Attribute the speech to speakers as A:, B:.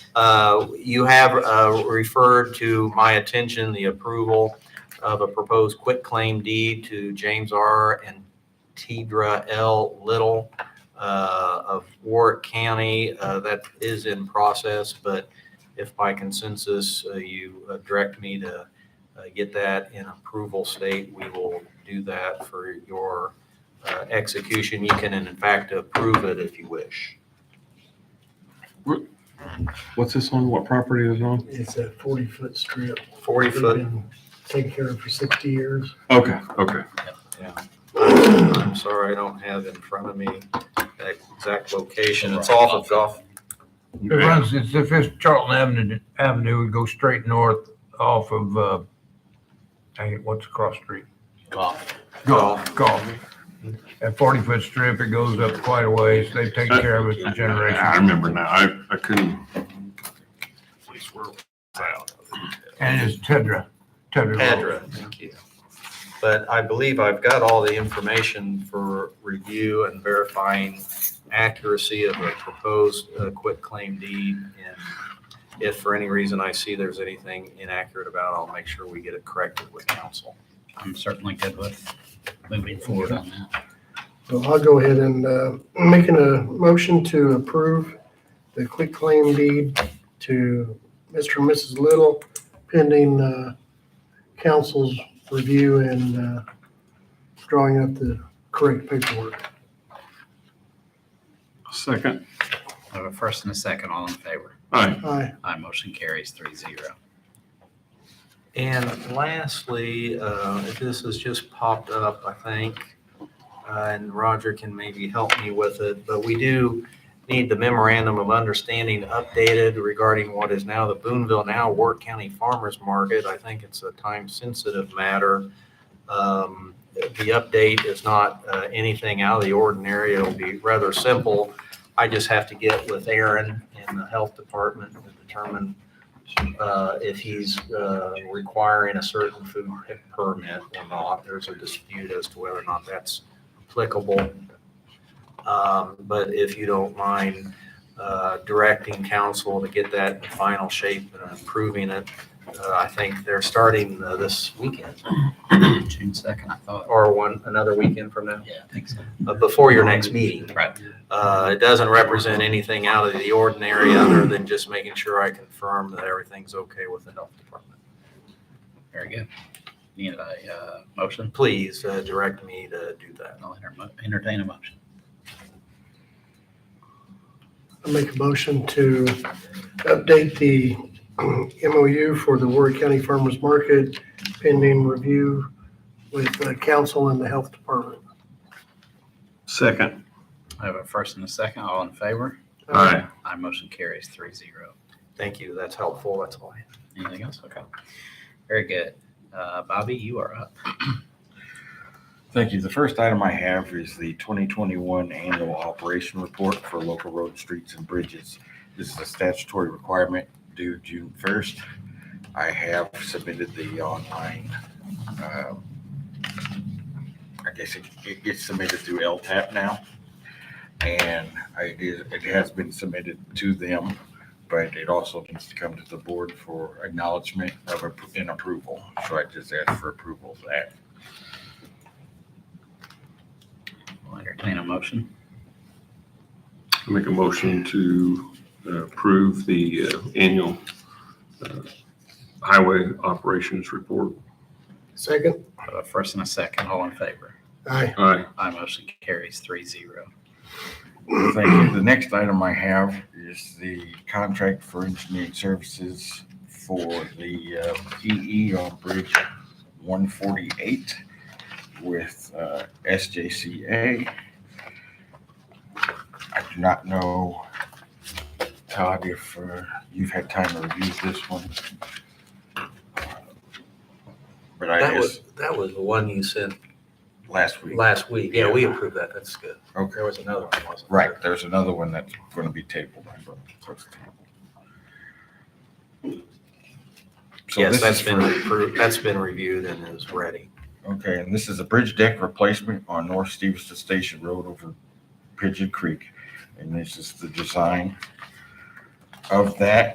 A: Uh, You have uh, referred to my attention the approval of a proposed quitclaim deed to James R. and Tidra L. Little uh, of Warwick County. Uh, That is in process, but if by consensus uh, you uh, direct me to uh, get that in approval state, we will do that for your uh, execution. You can in fact approve it if you wish.
B: What's this on? What property is it on?
C: It's a forty foot strip.
A: 40-foot,
C: They've been Taken care of for sixty years.
B: Okay, okay.
A: I'm sorry, I don't have in front of me that exact location. It's off of Gulf.
D: It runs, it's, if it's Charlton Avenue, Avenue, it goes straight north off of, uh, dang it, what's the cross street?
E: Golf.
D: Golf, golf. At forty foot strip, it goes up quite a ways. They've taken care of it for
B: I
D: generations.
B: remember now. I, I couldn't. Place where it was out.
D: And it's Tedra, Tedra. Road.
A: Pedra, thank you. But I believe I've got all the information for review and verifying accuracy of a proposed uh, quitclaim deed. And if for any reason I see there's anything inaccurate about, it, I'll make sure we get it corrected with counsel.
E: I'm certainly good with moving forward on that.
C: So I'll go ahead and, uh, making a motion to approve the quick claim deed to Mr. and Mrs. Little pending, uh, council's review and, uh, drawing up the correct paperwork.
B: Second.
E: I have a first and a second, all in favor.
B: Aye.
C: Aye.
E: Aye, motion carries three zero.
A: And lastly, uh, this has just popped up, I think, uh, and Roger can maybe help me with it, but we do need the memorandum of understanding updated regarding what is now the Boonville now Work County Farmers Market. I think it's a time-sensitive matter. Um, The update is not uh, anything out of the ordinary. It'll be rather simple. I just have to get with Aaron and the Health Department to determine uh, if he's uh, requiring a certain food permit or not. There's a dispute as to whether or not that's applicable. Um, But if you don't mind uh, directing council to get that in final shape and approving it, uh, I think they're starting uh, this weekend
E: June second, I thought.
A: or one, another weekend from now,
E: Yeah, I think so.
A: uh, before your next meeting.
E: Right.
A: Uh, It doesn't represent anything out of the ordinary other than just making sure I confirm that everything's okay with the health department.
E: Very good. Need a uh, motion?
A: please uh, direct me to do that.
E: I'll enter- entertain a motion.
C: I make a motion to update the MOU for the Warrick County Farmers Market pending review with the council and the health department.
B: Second.
E: I have a first and a second, all in favor.
B: Aye.
E: Aye, motion carries three zero.
A: Thank you. That's helpful. That's all I have.
E: Anything else? Okay. Very good. Uh, Bobby, you are up.
F: Thank you. The first item I have is the 2021 Annual Operation Report for local road, streets, and bridges. This is a statutory requirement due June 1st. I have submitted the online, um, I guess it- it gets submitted through LTAP now. And I did- it has been submitted to them, but it also needs to come to the board for acknowledgement of appro- and approval. So I just asked for approval of that.
E: I'll entertain a motion.
B: Make a motion to uh, approve the uh, annual uh, highway operations report.
C: Second?
E: I have a first and a second, all in favor.
C: Aye.
B: Aye.
E: Aye, motion carries three zero.
F: Thank you. The next item I have is the contract for engineering services for the uh, PE on Bridge 148 with uh, SJCA. I do not know, Todd, if uh, you've had time to review this one. Uh, But I
A: That
F: guess
A: was, that was the one you sent
F: last week,
A: last week. Yeah, we approved that. That's good.
F: okay.
A: There was another one, wasn't there?
F: Right, there's another one that's gonna be tabled. I believe. So it's tabled. So
A: Yes,
F: this
A: that's
F: is
A: been
F: for-
A: approved. That's been reviewed and is ready.
F: Okay, and this is a bridge deck replacement on North Stevenson Station Road over Pigeon Creek. And this is the design of that.